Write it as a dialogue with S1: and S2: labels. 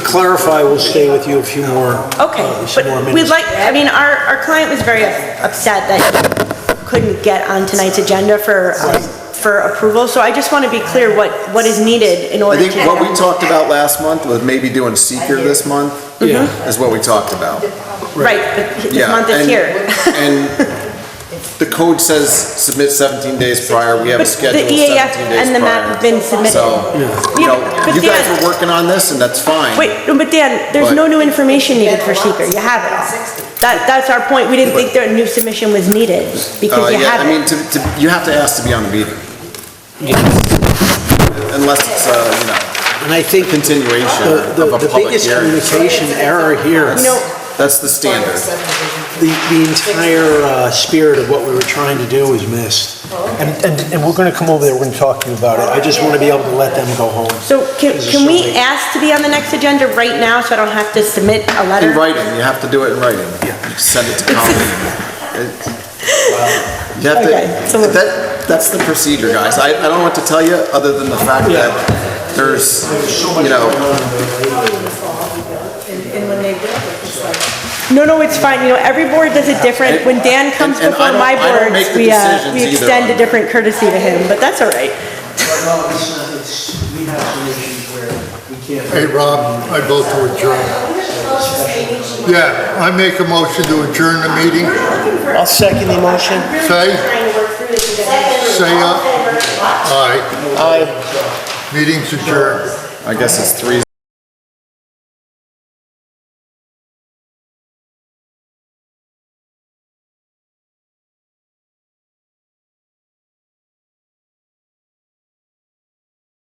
S1: clarify, we'll stay with you a few more,
S2: Okay,
S3: Oh,
S1: uh, some more
S2: but
S1: minutes.
S2: we'd like, I mean, our, our client was very upset that he couldn't get on tonight's agenda for, um, for approval, so I just want to be clear what, what is needed in
S3: I
S2: order to.
S3: think what we talked about last month was maybe doing seeker this month,
S1: Yeah.
S3: is what we talked about.
S2: Right, but this
S3: Yeah,
S2: Mm-hmm. month is
S3: and-
S2: here.
S3: And the code says submit 17 days prior, we have
S2: But the
S3: a schedule 17 days
S2: EAF
S3: prior.
S2: and the map have been submitted.
S3: So,
S2: Yeah,
S3: you know,
S2: but
S3: you guys
S2: Dan-
S3: were working on this, and that's fine. Uh,
S2: Wait, no, but Dan, there's no
S3: But-
S2: new information needed for seeker, you have it all. That, that's our point, we didn't think that a new submission was needed,
S3: Uh,
S2: because you
S3: yeah,
S2: have
S3: I mean,
S2: it.
S3: to, to, you have to ask to be on the meeting. Unless it's, uh, you know,
S1: And I think the,
S3: continuation
S1: the
S3: of a
S1: the
S3: public
S1: biggest
S3: hearing.
S1: communication error here,
S2: You know,
S3: That's the standard.
S1: the, the entire uh, spirit of what we were trying to do was missed.
S2: Oh,
S1: And, and, and we're gonna come over there, we're gonna talk to you about it. I just wanna be able to let them go home.
S2: So can,
S1: This is
S2: can
S1: so
S2: we
S1: late.
S2: ask to be on the next agenda right now, so I don't have to submit a
S3: In
S2: letter?
S3: writing, you have to do it in writing. You Send it to Colleen. It- You have
S2: Okay, so
S3: to,
S2: we're-
S3: that, that's the procedure, guys. I, I don't know what to tell you, other than the fact that there's, you know,
S4: And, and when they do it, it's like,
S2: No, no, it's fine, you know, every board does it different. When Dan comes
S3: And- and I
S2: before
S3: don't-
S2: my
S3: I don't
S2: board,
S3: make the
S2: we, uh,
S3: decisions
S2: we
S3: either
S2: extend a
S3: on-
S2: different courtesy to him, but that's all right.
S1: No, it's, not- it's, we have some issues where we can't.
S5: Hey, Rob, I vote to adjourn. Yeah, I make a motion to adjourn the meeting.
S1: I'll second the motion.
S5: Say, say aye. Aye. Meeting's adjourned.
S3: I guess it's three